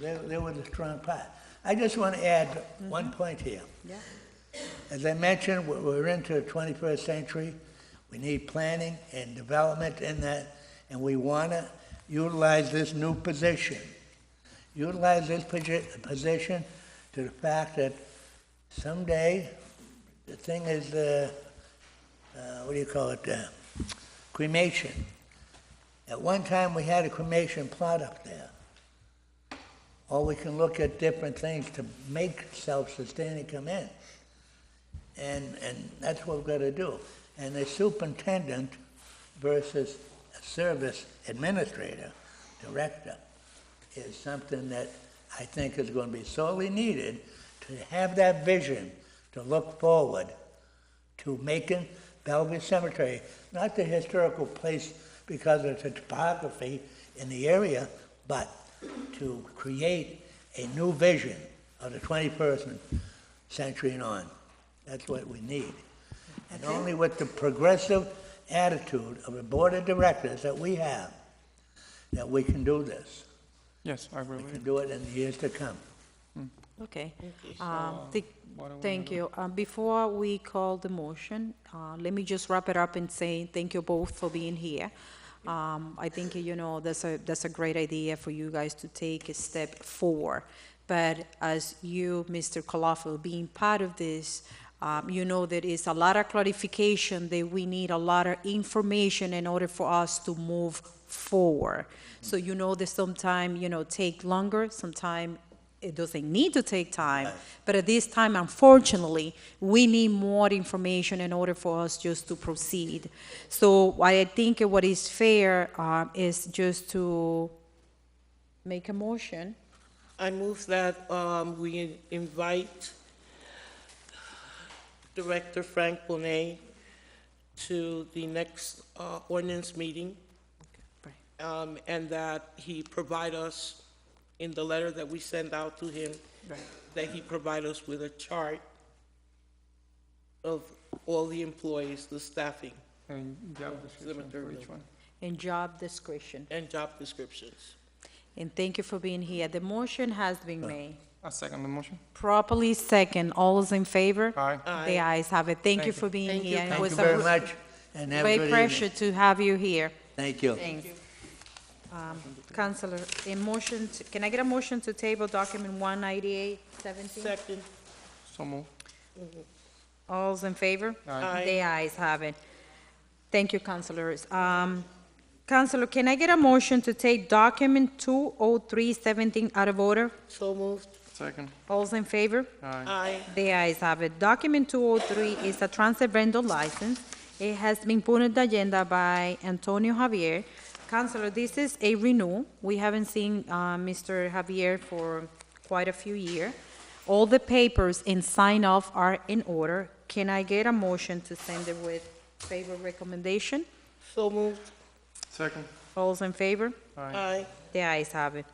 They, they were the strong part. I just want to add one point here. Yeah. As I mentioned, we're- we're into the 21st century. We need planning and development in that, and we want to utilize this new position. Utilize this posi- position to the fact that someday, the thing is, uh, uh, what do you call it, uh, cremation. At one time, we had a cremation plot up there. Or we can look at different things to make self-sustaining come in. And, and that's what we've got to do. And a superintendent versus a service administrator, director, is something that I think is going to be sorely needed to have that vision, to look forward to making Bellevue Cemetery, not the historical place because of the topography in the area, but to create a new vision of the 21st century and on. That's what we need. And only with the progressive attitude of the board of directors that we have, that we can do this, Yes, I agree with and you. do it in the years to come. Okay. Um, thi- what do we Thank you. Um, Before we call the motion, uh, let me just wrap it up and say thank you both for being here. Um, I think, you know, that's a, that's a great idea for you guys to take a step forward. But as you, Mr. Colafo, being part of this, um, you know, there is a lot of clarification that we need a lot of information in order for us to move forward. So you know that sometime, you know, take longer, sometime it doesn't need to take time, but at this time, unfortunately, we need more information in order for us just to proceed. So what I think what is fair uh, is just to make a motion. I move that um, we invite Director Frank Bonet to the next uh, ordinance meeting, um, and that he provide us, in the letter that we send out to him, that he provide us with a chart of all the employees, the staffing, And job description for each one. And job description. and job descriptions. And thank you for being here. The motion has been made. I Ah, second the motion. Properly second. All is in favor? Aye. The ayes have it. Thank you you. for being Thank you, here. and It Thank was you a very re- much, and have a Great good pressure evening. to have you here. Thank you. Thanks. Counselor, a motion, to- can I get a motion to table document one ninety-eight seventeen? Second, So move. All's in favor? Aye. The ayes have it. Thank you, counselors. Um, Counselor, can I get a motion to take document two oh three seventeen out of order? so moved. Second. All's in favor? Aye. Aye. The ayes have it. Document 203 is a transfer vendor license. It has been put on the agenda by Antonio Javier. Counselor, this is a renewal. We haven't seen uh, Mr. Javier for quite a few years. All the papers and sign off are in order. Can I get a motion to send it with favor recommendation? So moved. Second. All's in favor? Aye. Aye. The ayes have it.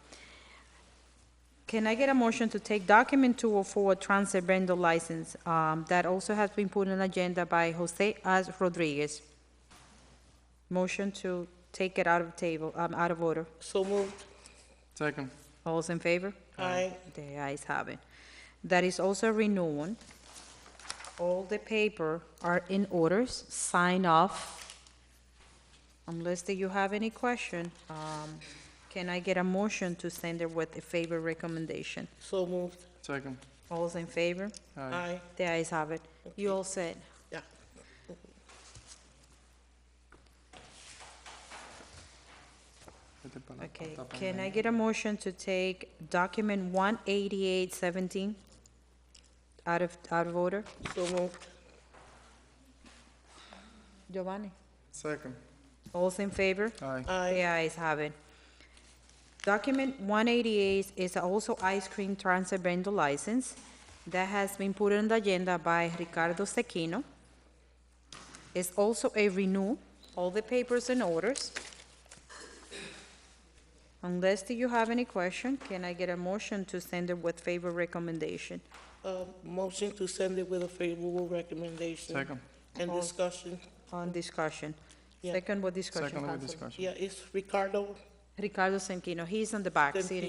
Can I get a motion to take document 204, transit rental license, um, that also has been put on agenda by Jose as Rodriguez? Motion to take it out of table, um, out of order. So moved. Second. All's in favor? Aye. The ayes have it. That is also renewed. All the paper are in orders, sign off. Unless that you have any question, um, can I get a motion to send it with a favor recommendation? So moved. Second. All's in favor? Aye. Aye. The ayes have it. You all said. Yeah. Okay, can I get a motion to take document one eighty-eight seventeen out of, out of order? So moved. Giovanni? Second. All's in favor? Aye. The Aye. ayes have it. Document 188 is also ice cream transfer vendor license that has been put on the agenda by Ricardo Sequino. It's also a renew, all the papers and orders. Unless do you have any question, can I get a motion to send it with favor recommendation? Uh, Motion to send it with a favorable recommendation. Second. And All- discussion. On discussion. Yeah. Second with discussion, Second with Councilor. discussion. Yeah, it's Ricardo. Ricardo Sequino, he's on the back, Then sitting.